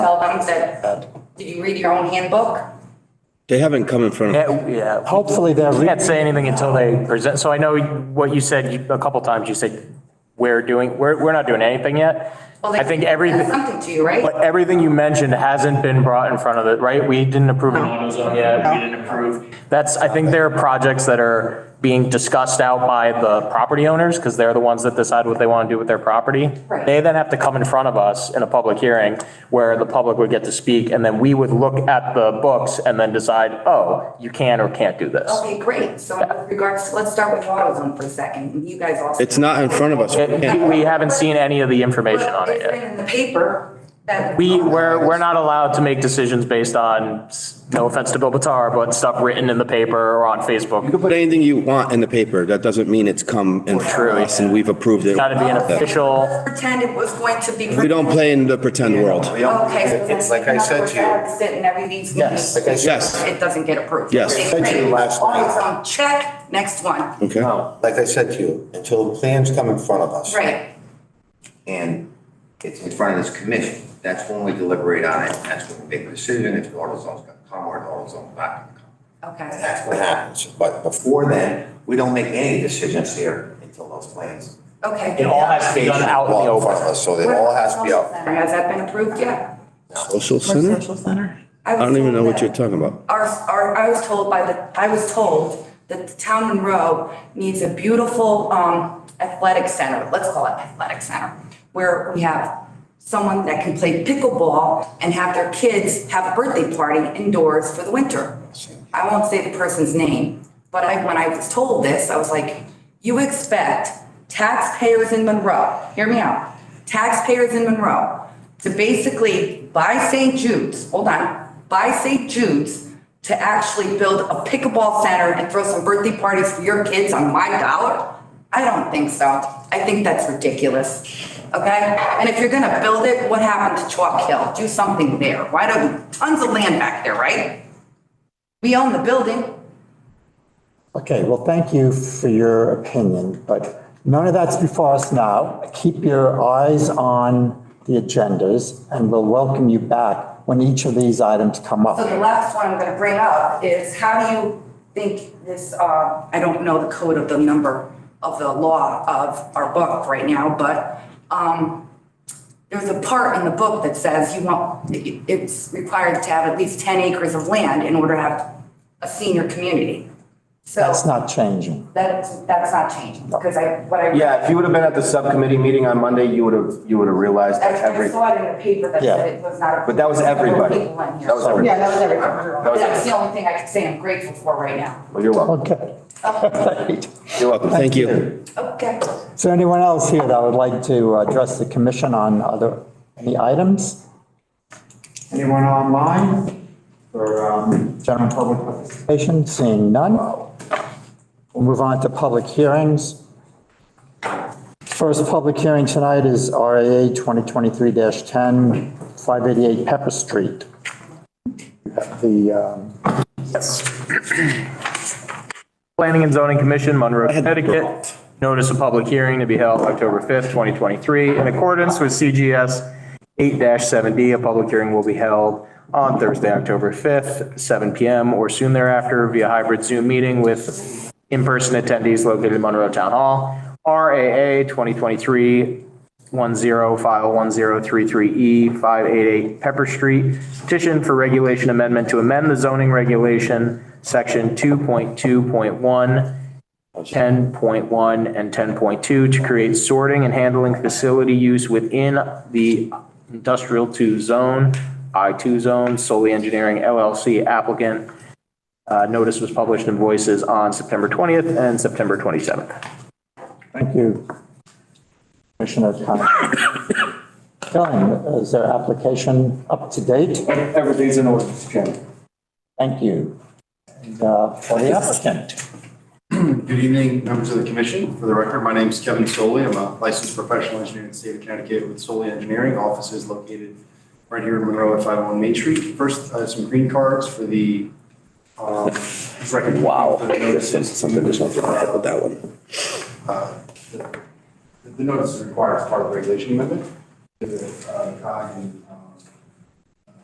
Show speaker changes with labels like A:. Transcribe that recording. A: ones that, did you read your own handbook?
B: They haven't come in front of,
C: Yeah, yeah.
D: Hopefully they'll.
C: I
D: re-
C: Can't say anything until they present. So I know what you said, you- a couple times you said, we're doing, we're, we're not doing anything yet.
A: Well, they-
C: I think every,
A: that's Something to you, right?
C: but everything you mentioned hasn't been brought in front of the, right? We didn't approve an auto zone yet. We didn't approve. That's, I think there are projects that are being discussed out by the property owners because they're the ones that decide what they want to do with their property.
A: Right.
C: They then have to come in front of us in a public hearing where the public would get to speak and then we would look at the books and then decide, oh, you can or can't do this.
A: Okay, great. So with regards, let's start with AutoZone for a second. You guys also.
B: it's not in front of us. We
C: It-
B: can't-
C: We haven't seen any of the information on it
A: It's been
C: yet.
A: in the paper that.
C: We, we're, we're not allowed to make decisions based on, no offense to Bill Batar, but stuff written in the paper or on Facebook.
B: Put anything you want in the paper. That doesn't mean it's come in front of us and we've approved it.
C: Got to be an official,
A: Pretend it was going to be.
B: We don't play in the pretend world.
A: Okay. so
E: It's like I said to you.
A: Sit and everything's. Yes.
E: Like I said-
B: Yes.
A: It doesn't get approved.
B: Yes. Mm-hmm.
A: Okay,
E: I said to you
A: great.
E: last night.
A: AutoZone, check, next one.
B: Okay?
C: Oh.
E: Like I said to you, until plans come in front of us.
A: Right.
F: and it's in front of this commission. That's when we deliberate on it, and that's when we make a decision if the AutoZone's gonna come or the AutoZone's not gonna come. And
A: Okay.
F: that's what happens, but before then, we don't make any decisions here until those plans.
C: it
A: Okay.
C: all has to be done out in the
E: Well, in front
C: open.
E: of us, So it all has to be out.
A: Has that been approved yet?
B: Social center? I don't even know what you're talking about.
A: Our, our, I was told by the, I was told that the town Monroe needs a beautiful, um, athletic center, let's call it athletic center, where we have someone that can play pickleball and have their kids have a birthday party indoors for the winter. I won't say the person's name, but I, when I was told this, I was like, you expect taxpayers in Monroe, hear me out, taxpayers in Monroe to basically buy St. Jude's, hold on, buy St. Jude's to actually build a pickleball center and throw some birthday parties for your kids on my dollar? I don't think so. I think that's ridiculous. Okay? And if you're gonna build it, what happened to Chalk Hill? Do something there. Why don't, tons of land back there, right? We own the building.
D: Okay, well, thank you for your opinion, but none of that's before us now. Keep your eyes on the agendas and we'll welcome you back when each of these items come
A: So the
D: up.
A: last one I'm gonna bring up is how do you think this, uh, I don't know the code of the number of the law of our book right now, but, um, there's a part in the book that says you want, it- it's required to have at least ten acres of land in order to have a senior community. So
D: That's not changing.
A: that's, that's not changing, because I, what I.
G: Yeah, if you would have been at the subcommittee meeting on Monday, you would have, you would have realized
A: I
G: that
A: I
G: every,
A: saw it in the paper that
D: Yeah.
A: said it was not.
G: But that was everybody.
A: People in here.
G: That was
A: So-
G: everybody.
H: Yeah, that was everything.
G: was
A: That's the only thing I can say I'm grateful for right now.
G: well, you're welcome.
D: Okay.
B: You're welcome. Thank you.
A: Okay.
D: Is there anyone else here that would like to address the commission on other, any items?
I: Anyone online for um, general public participation?
D: Patient, seeing none. We'll move on to public hearings. First public hearing tonight is RAA 2023-10, 588 Pepper Street. The, um,
C: Planning and Zoning Commission, Monroe, Connecticut. Notice of public hearing to be held October 5th, 2023. In accordance with CGS 8-7D, a public hearing will be held on Thursday, October 5th, 7 PM or soon thereafter via hybrid Zoom meeting with in-person attendees located in Monroe Town Hall. RAA 2023 10 file 1033E 588 Pepper Street. Petition for regulation amendment to amend the zoning regulation, section 2.2.1, 10.1, and 10.2 to create sorting and handling facility use within the industrial 2 zone, I2 zone, solely engineering LLC applicant. Uh, Notice was published in Voices on September 20th and September 27th.
D: thank you, Commissioner Khan. Dylan, is their application up to date?
I: Everything's in order, Mr. Chairman.
D: Thank you. And, uh, For the applicant.
I: Good evening, members of the commission. For the record, my name is Kevin Soley. I'm a licensed professional engineer in the state of Connecticut with Soley Engineering. Office is located right here in Monroe at 501 Main Street. First, uh, some green cards for the, um, record.
B: Wow,
I: The
B: this is something that's not gonna happen with that one.
I: uh, The the notice is required as part of the regulation amendment. The uh, COG and